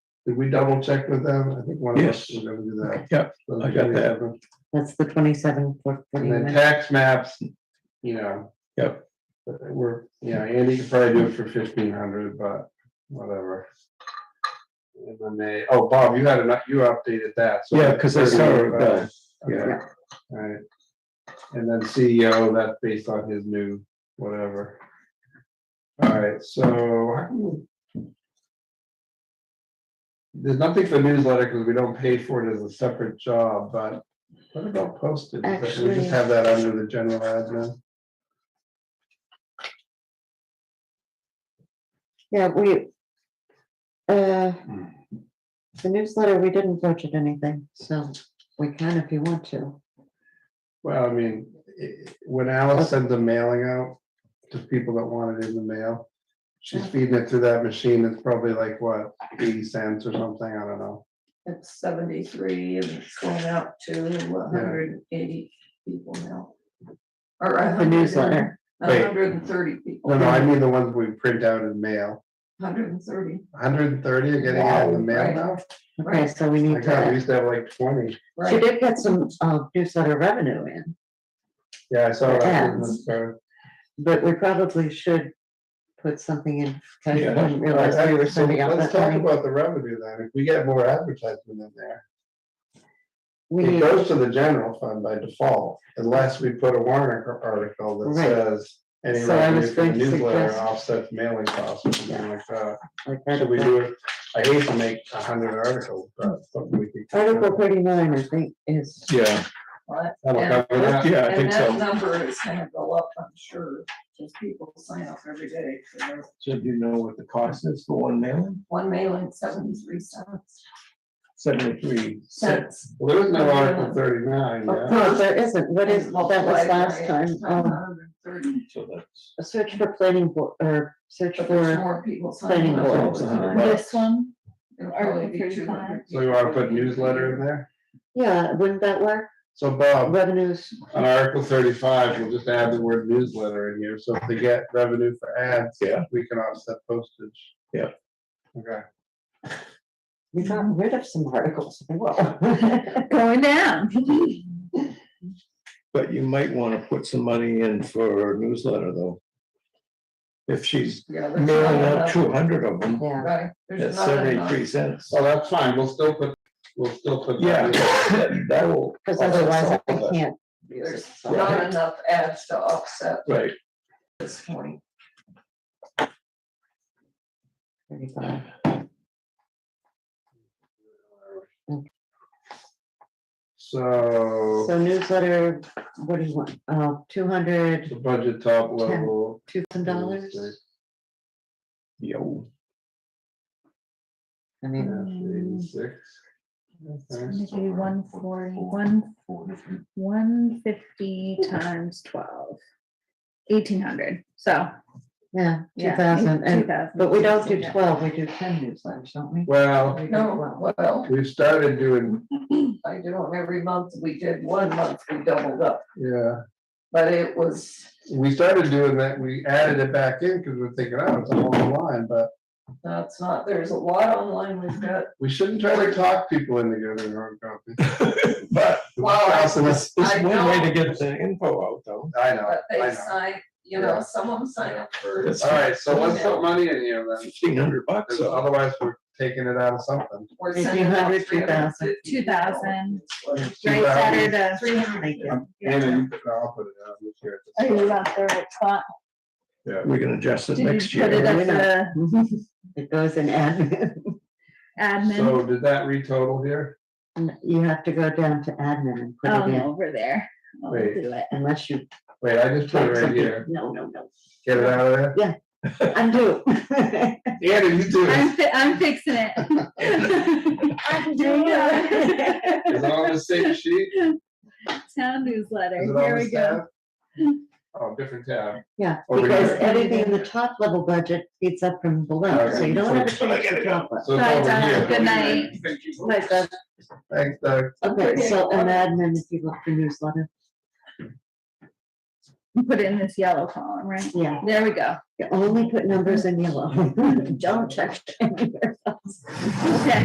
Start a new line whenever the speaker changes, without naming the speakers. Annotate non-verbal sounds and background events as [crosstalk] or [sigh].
Did we double check with them? I think one of us
Yes.
was gonna do that.
Yep,
So,
I got that.
That's the twenty-seven, four,
And then
forty-nine.
tax maps, you know.
Yep.
but they We're, you know, Andy could probably do it for fifteen hundred, but whatever. And then they, oh, Bob, you had enough, you updated that. so
Yeah, 'cause I saw it, uh,
Okay, Alright. And then CEO, that's based on his new whatever. Alright, so. how can we- There's nothing for newsletter because we don't pay for it as a separate job, but what about postage? Is that- We
Actually-
just have that under the general admin.
Yeah, we, uh,
Hmm.
the newsletter, we didn't budget anything, so we can if you want to.
Well, I mean, i- when Alice sends a mailing out to people that want it in the mail, she's feeding it through that machine. It's probably like what, eighty cents or something, I don't know.
It's seventy-three and it's going out to hundred and eighty people now. Or a
The
hundred and-
newsletter,
A
Wait.
hundred and thirty people.
No, no, I mean the ones we print out in mail.
Hundred and thirty,
Hundred and thirty are getting it in the mail
Wow.
now?
okay, so we
My
need
God, we
to,
used to have like twenty.
she
right,
did get some, uh, newsletter revenue in,
Yeah, I saw that. in the
Ads.
store.
but we probably should put something in, because I
Yeah.
didn't
All right,
realize we were
so
sending out
Let's
that
talk
many.
about the revenue then. If we get more advertisement in there,
We
it
need,
goes to the general fund by default unless we put a warrant ar- article that
Right.
says any
So I
revenue
was
from the
going to
newsletter
suggest-
offsets mailing costs or something like that.
like,
Should we do
Article
it? I hate to make a hundred articles, but something we could.
Article thirty-nine, I think, is,
Yeah,
but-
That'll
and-
cover that.
yeah, I
And
think
that
so.
number is gonna go up, I'm sure, because people sign up every day for their
So do you know what the cost is for one mailing?
one mailing, seventy-three cents.
Seventy-three cents.
Cents.
Well, there is no article thirty-nine, yeah.
Oh, no, there isn't, what is, that was
Multiplied by
last time, um,
130,
So that's,
a search for planning board, or search
But there's
for,
more people
planning
signing up.
board.
all the time.
Right.
This one,
It'll
Article
probably be
35.
200
So you wanna put
people.
newsletter in there?
yeah, wouldn't that work?
So Bob,
Revenues,
on Article thirty-five, we'll just add the word newsletter in here, so if they get revenue for ads,
Yeah.
we can offset postage.
Yeah.
Okay,
we got rid of some articles, [laughs] well.
going down.
But you might want to put some money in for a newsletter though. If she's
Yeah, there's
mailing
not
out
enough,
two hundred of them,
Yeah,
right, there's
that's
not enough.
seventy-three cents.
so that's fine, we'll still put, we'll still put.
Oh, Yeah,
that in.
that will.
because
offset
otherwise I
some of it.
can't use it.
There's
so-
not enough ads to offset
Right,
this point.
35.
So,
So newsletter, what do you want, uh, two hundred,
the budget top level.
two thousand dollars?
yo,
I mean, hmm.
Eighty-six. Okay.
Maybe one forty, one, one fifty times twelve. Eighteen hundred, so.
yeah, two
yeah,
thousand, and,
2,000.
but we don't do
Yeah.
twelve, we do ten newsletters, don't we?
Well,
No, well,
we've started doing,
I do them every month, we did one month, we doubled up,
yeah.
but it was,
we started doing that, we added it back in because we're thinking, oh, it's a whole line, but
no, it's not, there's a lot online, we've got.
we shouldn't try to talk people into getting their own company.
but
Well,
it's, it's
I
one way
know.
to get the info out though.
I know,
but
I
they
know.
sign, you
Yeah.
know, some of them sign up for,
It's
All right, so let's put money in here then,
Fifteen hundred bucks,
'cause
so
otherwise we're taking it out of something.
we're
Fifteen
sending out
hundred, two
three hundred
thousand.
fifty dollars.
2,000.
Right,
Right, Saturday, three
Thank
hundred.
you.
And then you put- I'll put it out this year.
Oh, you left the right spot.
Yeah.
we can adjust it
Did
next
you put
year.
it
year.
at the
[laughs] It goes in admin,
admin?
So did that retotal here?
[laughs] you have to go down to admin and put
Oh,
it in,
no, over there. I'll
Wait.
do it.
unless you.
Wait, I just put it right
something-
here,
No, no, no,
get it out of
[laughs]
there.
undo. [laughs]
Andy, you do it,
I'm, fi- I'm fixing
[laughs]
it.
[laughs]
I'm doing it.
is it on the same sheet?
Town newsletter,
Is it on
here
the
we go.
tab? Oh, different tab,
Yeah,
Over
because
here.
everything in the top level budget feeds up from below, so
Okay,
you
so-
don't have a chance to drop it.
so it's
Bye,
over
Donna.
here.
Good night.
Thank you.
Like that.
Thanks, Doug.
Okay, so an admin, if you look for newsletter,
You Put it in this yellow column, right?
yeah,
There we go.
[laughs] you only put numbers in yellow. Don't check. anywhere else.
Okay.